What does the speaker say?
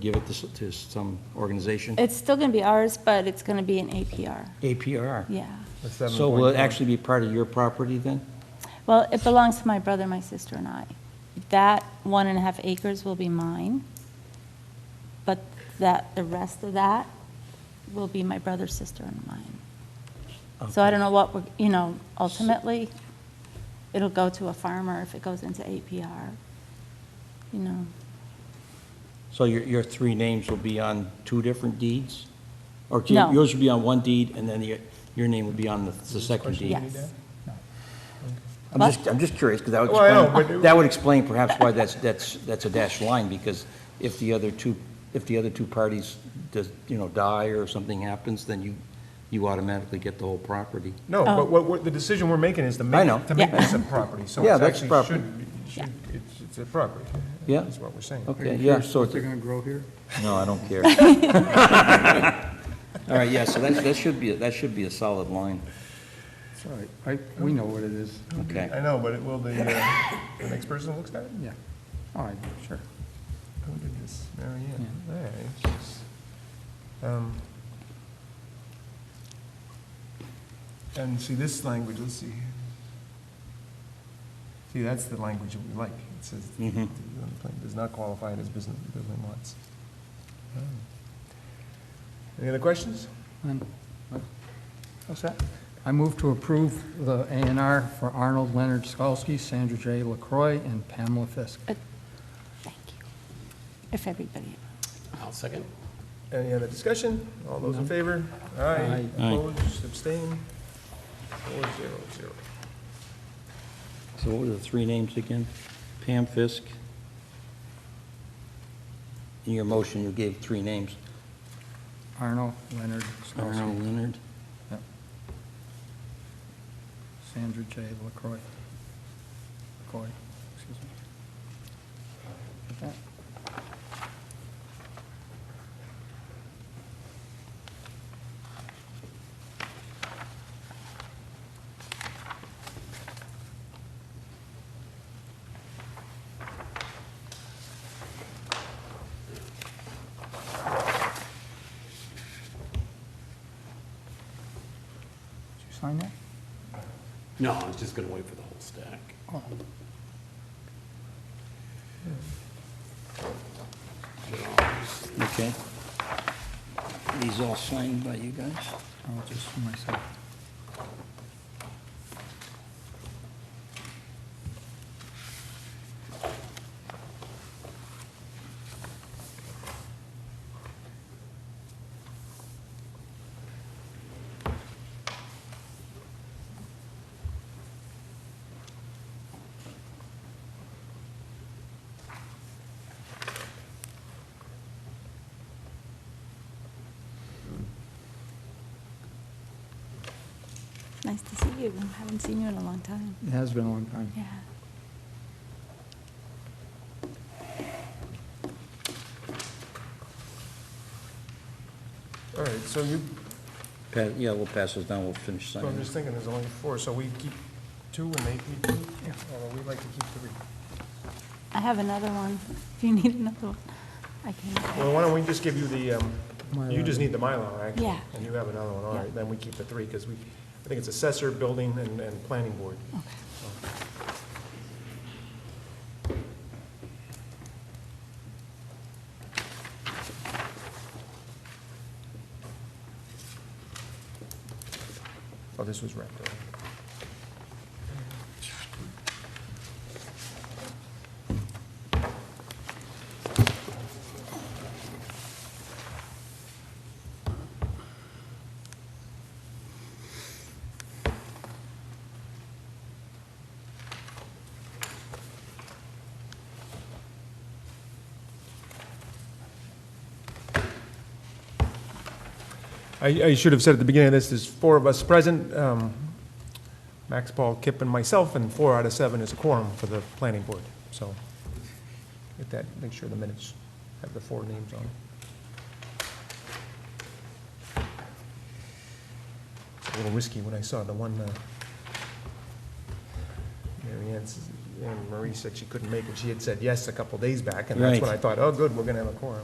give it to s- to some organization? It's still going to be ours, but it's going to be an APR, APRR. yeah. So will it actually be part of your property then? Well, it belongs to my brother, my sister, and I. That one and a half acres will be mine, but that, the rest of that will be my brother, sister, and mine. So I don't know what, we're you know, ultimately, it'll go to a farmer if it goes into APR, you know. So your, your three names will be on two different deeds? Or two- No. yours will be on one deed, and then your, your name will be on the, the second deed? Yes. I'm just, I'm just curious, because that Well, I know, would explain, but- that would explain perhaps why that's, that's, that's a dashed line, because if the other two, if the other two parties, does, you know, die or something happens, then you, you automatically get the whole property. No, but what, we're- the decision we're making is to I make, know. to make Yeah. this a property, so Yeah, it's that's actually property. should, be- should, it's, it's a property. Yeah. That's what we're saying. Okay, yeah, so, They're it's- gonna grow here? no, I don't care. All right, yeah, so that, that should be, that should be a solid line, It's all right. I, we know what it is. okay. I know, but it will, the, uh, the next person looks at it, Yeah. All right, sure. who did this, Mary Ann? Yeah, it's just, um, And see, this language, let's see. See, that's the language that we like, it says, Mhm. does not qualify it as business, building lots. Oh. Any other questions? And What's that? I move to approve the A and R for Arnold Leonard Skalsky, Sandra J. LaCroix, and Pamela Fisk. Thank you. If everybody, I'll second. Any other discussion? All those in favor? Aye. Aye. Aye. Opposed, abstain? Four zero zero. So what were the three names again? Pam Fisk? In your motion, you gave three names. Arnold Leonard Arnold Skalsky, Leonard? Sandra J. LaCroix. LaCroix, excuse me. Got that? Did you sign that? No, I was just gonna wait for the whole stack. Oh. Okay. These all signed by you guys? Oh, just for myself. nice to see you. Haven't seen you in a long time, It has been a long time. yeah. All right, so you, Pa- Yeah, we'll pass those down, we'll finish I'm signing. just thinking there's only four, so we keep two and they keep two? Yeah. Or we like to keep three? I have another one, if you need another one. I can, Well, why don't we just give you the, um, you Mylar. just need the Mylar, actually. Yeah. And you have another one, all Yeah. right, then we keep the three, because we, I think it's assessor, building, and, and planning board. okay. Oh, this was wrapped up. I, I should have said at the beginning of this, there's four of us present, um, Max, Paul, Kip, and myself, and four out of seven is a quorum for the planning board, so get that, make sure the minutes have the four names on. It's A little risky when I saw the one, uh, Mary Ann's- Anne Marie said she couldn't make it, she had said yes a couple days back, and that's when Right. I thought, oh, good, we're gonna have a quorum.